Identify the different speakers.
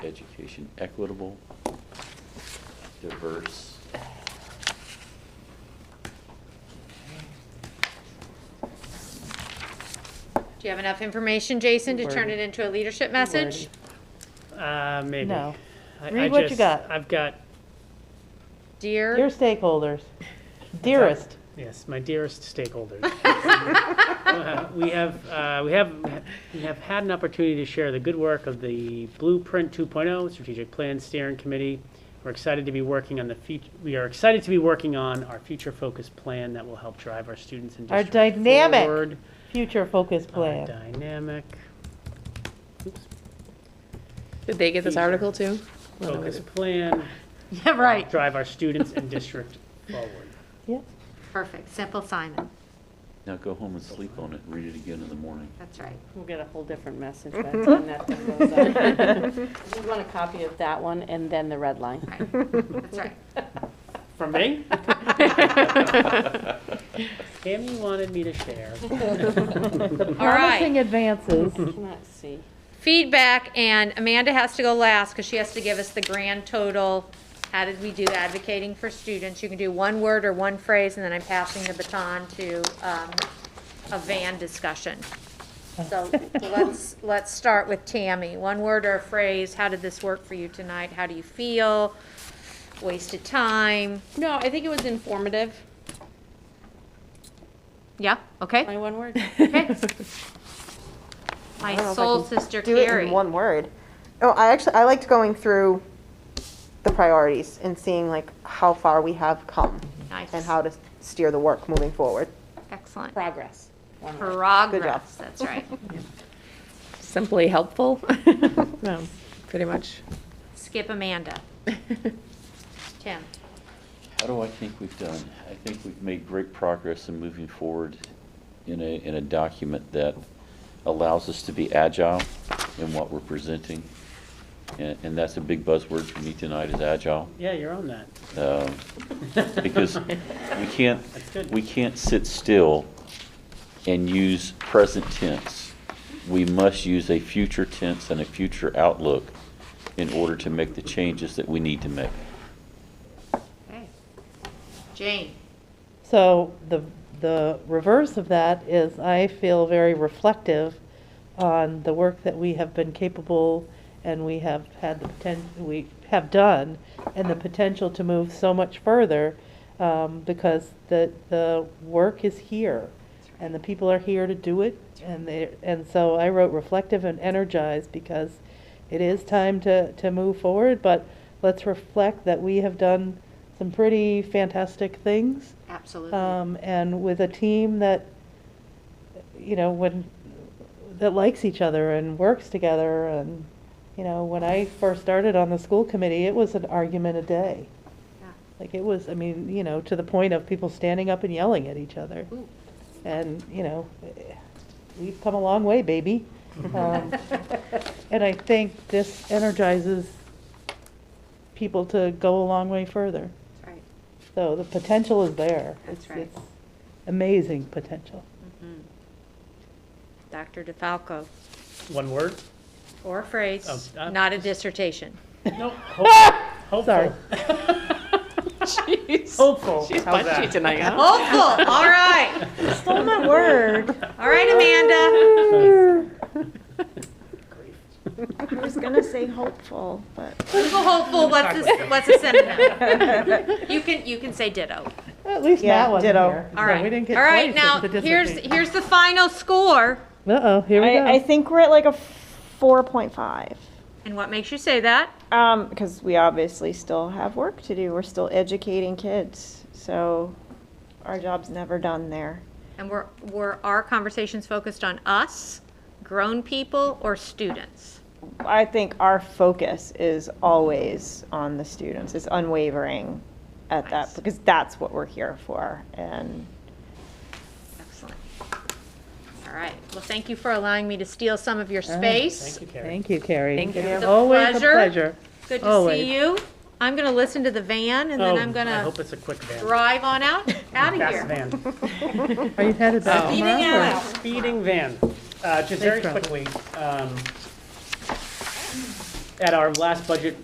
Speaker 1: education equitable, diverse.
Speaker 2: Do you have enough information, Jason, to turn
Speaker 3: Word.
Speaker 2: it into a leadership message?
Speaker 3: Uh, maybe.
Speaker 4: No.
Speaker 3: I- I
Speaker 4: Read what you
Speaker 3: just-
Speaker 4: got.
Speaker 3: I've got,
Speaker 4: Dear
Speaker 2: Dear,
Speaker 4: stakeholders, dearest,
Speaker 3: yes, my dearest stakeholders. Uh, We have, uh, we have, we have had an opportunity to share the good work of the Blueprint 2.0 Strategic Plan Steering Committee. We're excited to be working on the future, we are excited to be working on our future-focused plan that will help drive our students and
Speaker 4: Our
Speaker 3: district
Speaker 4: dynamic
Speaker 3: forward.
Speaker 4: future focus
Speaker 3: Our
Speaker 4: plan.
Speaker 3: dynamic oops,
Speaker 5: Did they get this
Speaker 3: Future.
Speaker 5: article too?
Speaker 3: focus plan,
Speaker 2: yeah, right.
Speaker 3: drive our students and district forward.
Speaker 4: Yep.
Speaker 2: Perfect, simple Simon,
Speaker 1: Now go home and sleep on it, read it again in the morning.
Speaker 2: that's right.
Speaker 6: We'll get a whole different message by the time that thing goes out. We want a copy of that one and then the red line.
Speaker 2: That's right.
Speaker 3: From me? Tammy wanted me to share.
Speaker 2: All right,
Speaker 4: Promising advances.
Speaker 6: Cannot see.
Speaker 2: feedback, and Amanda has to go last because she has to give us the grand total. How did we do advocating for students? You can do one word or one phrase, and then I'm passing the baton to um, a van discussion. So let's, let's start with Tammy. One word or a phrase, how did this work for you tonight? How do you feel? Wasted time?
Speaker 6: No, I think it was informative.
Speaker 2: Yeah, okay.
Speaker 6: My one word.
Speaker 2: My
Speaker 7: I don't know if I
Speaker 2: soul
Speaker 7: can
Speaker 2: sister
Speaker 7: do it
Speaker 2: Carrie.
Speaker 7: in one word. Oh, I actually I liked going through the priorities and seeing like how far we have come
Speaker 2: Nice.
Speaker 7: and how to steer the work moving forward.
Speaker 2: Excellent.
Speaker 6: Progress. One word.
Speaker 2: Progress, that's right.
Speaker 5: Simply helpful,
Speaker 4: No.
Speaker 5: pretty much.
Speaker 2: Skip Amanda. Tim,
Speaker 1: How do I think we've done? I think we've made great progress in moving forward in a, in a document that allows us to be agile in what we're presenting. And, and that's a big buzzword for me tonight is agile.
Speaker 3: Yeah, you're on that.
Speaker 1: Um, because we can't,
Speaker 3: That's good.
Speaker 1: we can't sit still and use present tense. We must use a future tense and a future outlook in order to make the changes that we need to make.
Speaker 2: okay. Jane,
Speaker 4: So the, the reverse of that is I feel very reflective on the work that we have been capable and we have had the potential, we have done and the potential to move so much further um, because the, the work is here and the people are here to do it. And they, and so I wrote reflective and energized because it is time to, to move forward, but let's reflect that we have done some pretty fantastic things.
Speaker 2: absolutely.
Speaker 4: Um, and with a team that, you know, when, that likes each other and works together and, you know, when I first started on the school committee, it was an argument a day.
Speaker 2: Yeah.
Speaker 4: Like it was, I mean, you know, to the point of people standing up and yelling at each other.
Speaker 2: Ooh.
Speaker 4: And, you know, we've come a long way, baby. Um, And I think this energizes people to go a long way further.
Speaker 2: That's right.
Speaker 4: So the potential is there.
Speaker 2: That's
Speaker 4: It's-
Speaker 2: right.
Speaker 4: it's Amazing potential.
Speaker 2: Dr. DeFalco,
Speaker 3: One word?
Speaker 2: or a phrase,
Speaker 3: Oh, uh,
Speaker 2: not a dissertation.
Speaker 3: No, hopeful.
Speaker 4: Sorry.
Speaker 5: Jeez.
Speaker 3: Hopeful.
Speaker 5: She's
Speaker 3: How's
Speaker 5: punchy
Speaker 3: that?
Speaker 5: tonight, huh?
Speaker 2: Hopeful, all right.
Speaker 7: Stole my word.
Speaker 2: All right, Amanda.
Speaker 7: I was gonna say hopeful, but
Speaker 2: Hopeful, hopeful, what's a, what's a synonym? You can, you can say ditto.
Speaker 4: At least
Speaker 7: Yeah,
Speaker 4: Matt wasn't
Speaker 7: ditto.
Speaker 4: here.
Speaker 2: All
Speaker 4: so
Speaker 2: right.
Speaker 4: We didn't get
Speaker 2: All right,
Speaker 4: points
Speaker 2: now,
Speaker 4: with the
Speaker 2: here's,
Speaker 4: dissertation.
Speaker 2: here's the final score.
Speaker 4: Uh-oh, here we go.
Speaker 7: I, I think we're at like a four point five.
Speaker 2: And what makes you say that?
Speaker 7: Um, because we obviously still have work to do. We're still educating kids, so our job's never done there.
Speaker 2: And were, were our conversations focused on us, grown people, or students?
Speaker 7: I think our focus is always on the students. It's unwavering at
Speaker 2: Nice.
Speaker 7: that because that's what we're here for. And
Speaker 2: Excellent. All right, well, thank you for allowing me to steal some of your space.
Speaker 3: Thank you, Carrie.
Speaker 4: Thank you, Carrie.
Speaker 5: Thank you.
Speaker 2: It's a
Speaker 4: Always a
Speaker 2: pleasure.
Speaker 4: pleasure.
Speaker 2: Good to
Speaker 4: Always.
Speaker 2: see you. I'm going to listen to the van, and then
Speaker 3: Oh,
Speaker 2: I'm going
Speaker 3: I
Speaker 2: to
Speaker 3: hope it's a quick van.
Speaker 2: drive on out, out of
Speaker 3: Fast
Speaker 2: here.
Speaker 3: van.
Speaker 4: Are you headed back
Speaker 2: Speeding
Speaker 4: tomorrow? or-
Speaker 2: out.
Speaker 3: Speeding van. Uh, just very
Speaker 4: Rob.
Speaker 3: quickly, um, at our last budget